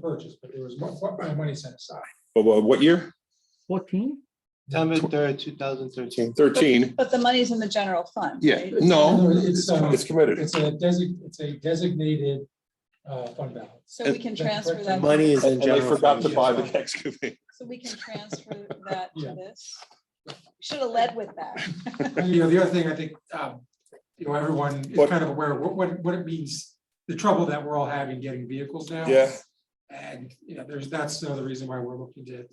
purchase, but there was mo- mo- money set aside. But what what year? Fourteen? September third, two thousand thirteen. Thirteen? But the money's in the general fund. Yeah, right? no, It's, um, uh, it's committed. It's a desi- it's a designated uh, fund balance. So we can transfer that. Money is in And they general. forgot to fund. buy the excavator. So we can transfer that Yeah. to this. Should have led with that. And, you know, the other thing I think, um, you know, everyone is What- kind of aware of what, what, what it means, the trouble that we're all having getting vehicles now. Yeah. And, you know, there's, that's another reason why we're looking to,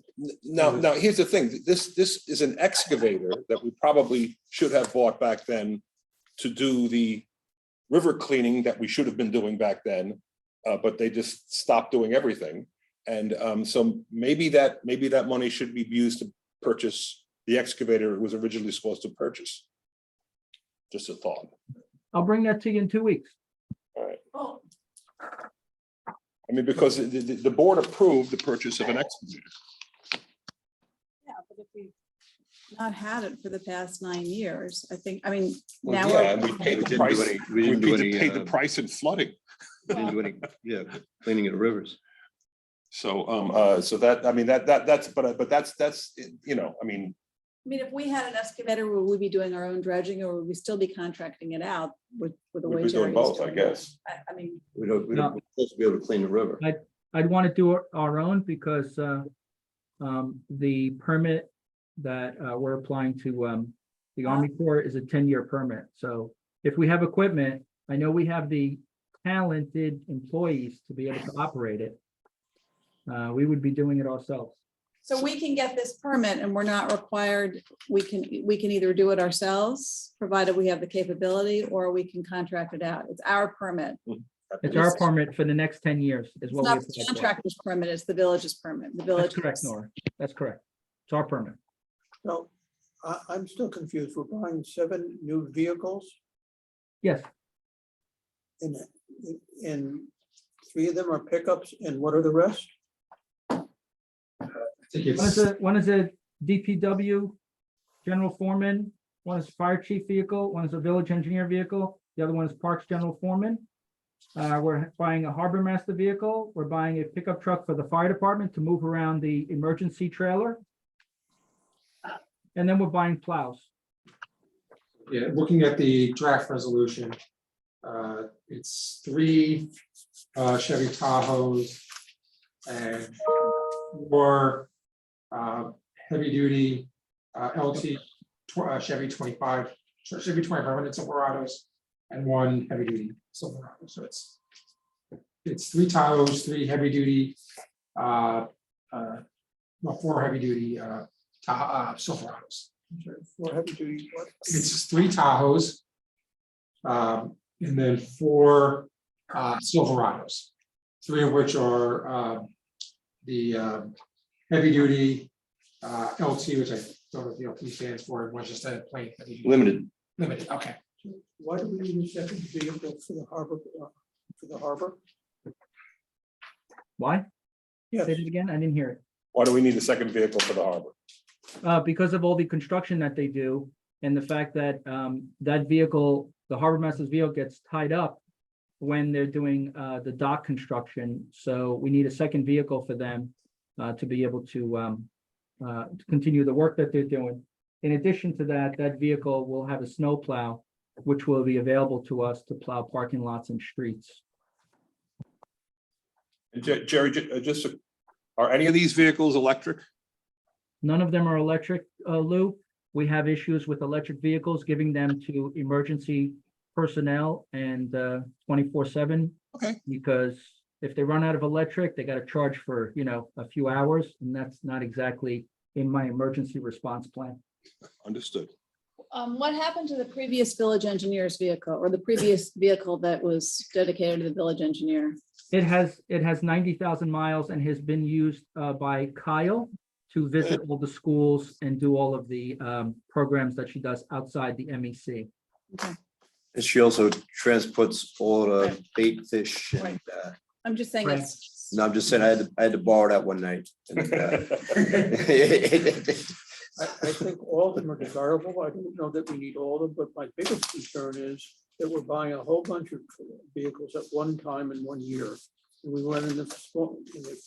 Now, now, here's the thing, this, this is an excavator that we probably should have bought back then to do the river cleaning that we should have been doing back then, uh, but they just stopped doing everything. And um, so maybe that, maybe that money should be used to purchase the excavator it was originally supposed to purchase. Just a thought. I'll bring that to you in two weeks. I mean, because the, the, the board approved the purchase of an excavator. Yeah, but if we Not had it for the past nine years, I think, I mean, Well, now. yeah, we're- and we We paid the didn't price. do any, we We didn't do any, paid the uh, price in flooding. we didn't do any, yeah, cleaning of the rivers. So, um, uh, so that, I mean, that, that, that's, but, but that's, that's, you know, I mean, I mean, if we had an excavator, would we be doing our own dredging or would we still be contracting it out with, with the way? we'd be doing Jerry is both, I doing it? guess. I, I mean, We don't, we No. don't, we're supposed to be able to clean the river. I'd want to do our- our own because uh, um, the permit that uh, we're applying to um, the Army Uh-huh. Corps is a ten-year permit. So if we have equipment, I know we have the talented employees to be able to operate it. Uh, We would be doing it ourselves. so we can get this permit and we're not required, we can, we can either do it ourselves, provided we have the capability, or we can contract it out. It's our permit. It's our permit for the next ten years is It's what. we not the apply for. contractor's permit, it's the village's permit, the village. That's correct, Nora. That's correct. It's our permit. No, I, I'm still confused. We're buying seven new vehicles Yes, and, and three of them are pickups and what are the rest? I think one it's, is a, one is a DPW general foreman, one is fire chief vehicle, one is a village engineer vehicle, the other one is parks general foreman. Uh, we're buying a harbor master vehicle, we're buying a pickup truck for the fire department to move around the emergency trailer. And then we're buying plows. yeah, looking at the draft resolution, uh, it's three uh, Chevy Tahoes and four uh, heavy-duty uh, LT tw- uh, Chevy twenty-five, Chevy twenty-five hundred Silverados, and one heavy-duty Silverado, so it's it's three Tahoes, three heavy-duty, uh, uh, well, four heavy-duty uh, Tah- uh, Silverados. Four heavy duty, what? It's three Tahoes. um, and then four uh, Silverados, three of which are um, the um, heavy duty uh, LT, which I don't know what the LT stands for, it was just a plain heavy duty Limited. limited, okay. Why do we need a second vehicle for the harbor, uh, for the harbor? Why? Yes, Say it again, I didn't hear it. Why do we need a second vehicle for the harbor? Uh, because of all the construction that they do and the fact that, um, that vehicle, the harbor master's vehicle gets tied up when they're doing, uh, the dock construction. So we need a second vehicle for them, uh, to be able to, um, uh, to continue the work that they're doing. In addition to that, that vehicle will have a snow plow, which will be available to us to plow parking lots and streets. And Jer- Jerry, ju- uh, just, a- are any of these vehicles electric? None of them are electric, uh, Lou. We have issues with electric vehicles, giving them to emergency personnel and, uh, twenty-four seven. Okay. Because if they run out of electric, they gotta charge for, you know, a few hours, and that's not exactly in my emergency response plan. Understood. Um, what happened to the previous village engineer's vehicle or the previous vehicle that was dedicated to the village engineer? It has, it has ninety thousand miles and has been used, uh, by Kyle to visit all the schools and do all of the, um, programs that she does outside the E MEC. And she also transports all the bait fish and, Right. uh, I'm just saying it's. no, I'm just saying, I had, to I had to borrow that one night. and, uh, I, I think all of them are desirable. I don't know that we need all of them, but my biggest concern is that we're buying a whole bunch of vehicles at one time in one year. And we run into small- in the